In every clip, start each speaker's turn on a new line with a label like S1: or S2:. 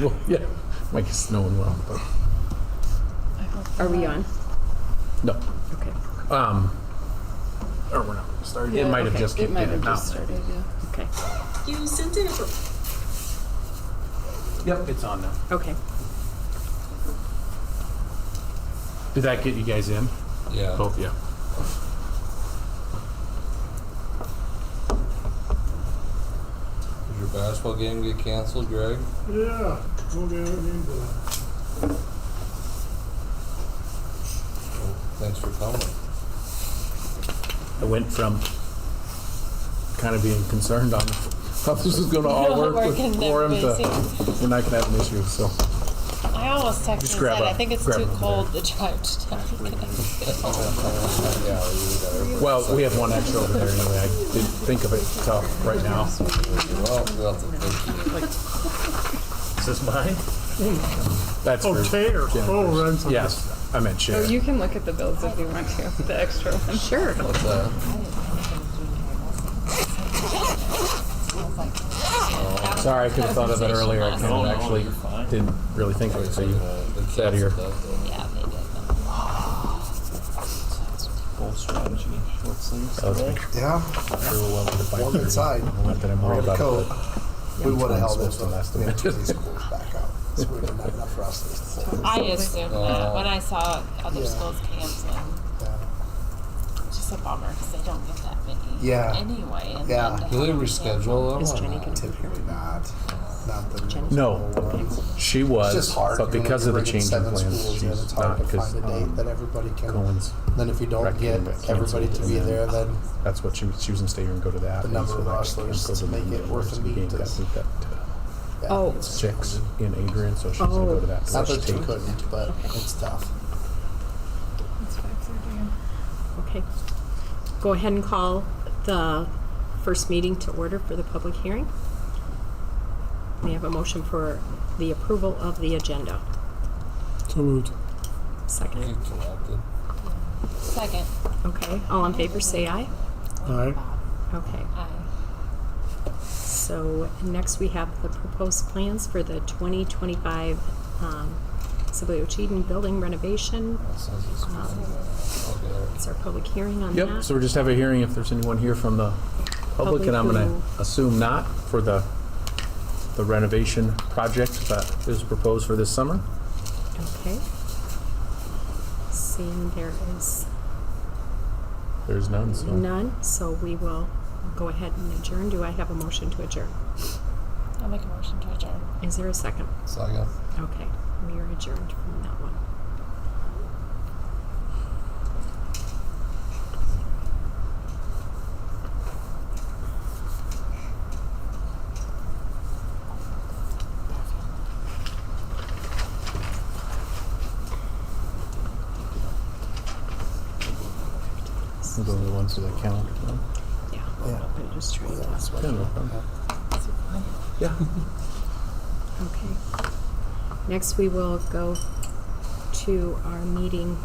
S1: Well, yeah, Mike is snowing well, but
S2: Are we on?
S1: no.
S2: Okay.
S1: Um, or we're not gonna start. It might have
S2: okay.
S1: just
S2: It
S1: kicked
S2: might
S1: in
S2: have
S1: now.
S2: just started. Okay.
S3: You sent in a pro-
S1: Yep, it's on now.
S2: Okay.
S1: Did that get you guys in?
S4: Yeah.
S1: Both, yeah.
S4: Did your basketball game get canceled, Greg?
S5: Yeah, we'll get it into that.
S4: Well, thanks for coming.
S1: I went from kind of being concerned on, thought this was gonna all
S6: No,
S1: work with
S6: working,
S1: quorum to,
S6: busy.
S1: and I can have an issue, so.
S6: I almost texted and said,
S1: grab a-
S6: I think it's
S1: grab
S6: too
S1: one
S6: cold to drive to town.
S4: Yeah, you got
S1: Well, we have one extra over there anyway. I didn't think of it till right now.
S4: everybody. Well, we'll have to thank you.
S1: Is this mine? That's for,
S5: Oh, Taylor, oh, Renzo.
S1: yes, I meant
S2: Oh,
S1: Sharon.
S2: you can look at the bills if you want to. The extra one. Sure.
S4: What's that?
S1: Sorry, I could have thought of it earlier. I
S4: No,
S1: kinda
S4: no,
S1: actually
S4: you're fine.
S1: didn't really think of it, so you,
S4: Uh, they
S1: Get outta here.
S4: canceled that, though.
S6: Yeah, they did.
S7: Full strategy, short sleeves.
S1: that was
S7: today.
S8: Yeah,
S1: sure well under five
S8: warm
S1: thirty.
S8: inside.
S1: Not that I'm worried
S8: Warm
S1: about
S8: coat.
S1: it, but
S8: we would have held
S1: supposed
S8: this
S1: to
S8: one.
S1: last a
S8: We had
S1: bit.
S8: two of these schools back out. This would have been enough for us this time.
S6: I assumed
S1: Uh,
S6: that when I saw other
S8: Yeah.
S6: schools canceling. It's just a bummer because they don't get that many.
S8: Yeah.
S6: Anyway. And
S8: Yeah.
S6: Then to
S4: Do they
S6: have them
S4: reschedule them?
S2: Is
S4: or
S2: Jenny
S4: not?
S2: gonna be here?
S8: Typically not, not the. middle
S1: No.
S8: school ones.
S1: she
S8: It's
S1: was,
S8: just hard.
S1: Oh, but
S8: you know,
S1: because of
S8: you're
S1: the
S8: bringing
S1: change in
S8: seven
S1: plans,
S8: schools in, It's
S1: she's not um,
S8: hard to
S1: because
S8: find a date that everybody can,
S1: Cohen's.
S8: then if you don't get
S1: recommend it
S8: everybody to
S1: canceled,
S8: be
S1: and
S8: there, then
S1: That's what she was choosing to stay here and go to that.
S8: The
S1: and
S8: number
S1: so
S8: of
S1: that
S8: wrestlers
S1: can't go
S8: to
S1: the
S8: make it
S1: Monday
S8: worth
S1: versus
S8: a
S1: the
S8: meet
S1: game got
S8: is-
S1: moved up to
S8: yeah,
S2: Oh,
S8: it's
S1: uh, Six in Adrian, so she's gonna go to that.
S8: not that
S1: first
S8: you
S1: tape.
S8: couldn't, but it's tough.
S2: okay. Go ahead and call the first meeting to order for the public hearing. We have a motion for the approval of the agenda.
S5: So moved.
S4: You
S2: Second.
S4: interrupted.
S6: Second.
S2: Okay. All in favor, say aye.
S5: Aye.
S2: Okay.
S6: I
S2: So next we have the proposed plans for the 2025 um, Sibley Cheatham Building renovation. Um,
S4: That sounds just- Okay.
S2: It's our public hearing on that.
S1: Yep, so we're just have a hearing if there's anyone here from the public, and I'm gonna
S2: Public who-
S1: assume not for the, the renovation project that is proposed for this summer.
S2: Okay. Seeing there is
S1: There's none, so.
S2: none, so we will go ahead and adjourn. Do I have a motion to adjourn?
S6: I'll make a motion to adjourn.
S2: Is there a second?
S4: Second.
S2: Okay, we are adjourned from that one.
S1: We'll go to the ones with the calendar. no?
S2: Yeah,
S8: Yeah.
S2: I'm just trying to.
S1: Yeah, no problem. Yeah.
S2: Okay. Next, we will go to our meeting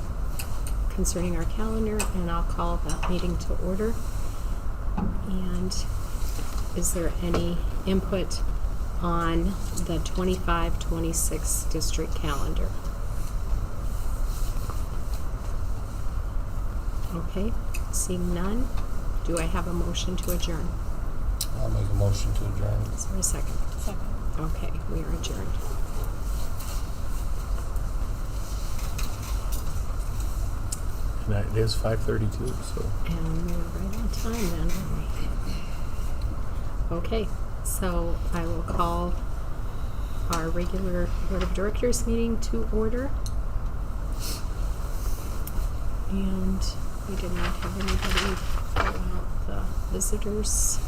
S2: concerning our calendar, and I'll call that meeting to order. And is there any input on the 25-26 district calendar? Okay, seeing none, do I have a motion to adjourn?
S4: I'll make a motion to adjourn.
S2: Is there a second?
S6: Second.
S2: Okay, we are adjourned.
S1: And that- it is 5:32, so.
S2: And we were right on time then, weren't we? Okay, so I will call our regular Board of Directors meeting to order. And we did not have anybody fill out the visitors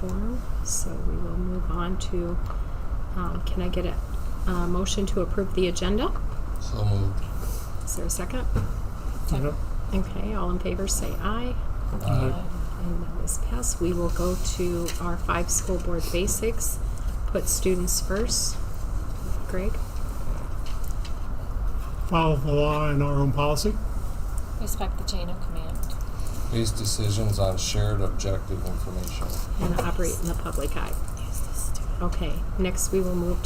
S2: form, so we will move on to, um, can I get a, a motion to approve the agenda?
S4: So moved.
S2: Is there a second?
S5: Yep.
S2: Okay, all in favor, say aye.
S5: Aye.
S6: um,
S2: And that was passed. We will go to our five school board basics, put students first. Greg?
S5: Follow the law and our own policy.
S6: Respect the chain of command.
S4: Base decisions on shared objective information.
S2: And operate in the public eye. Okay, next we will move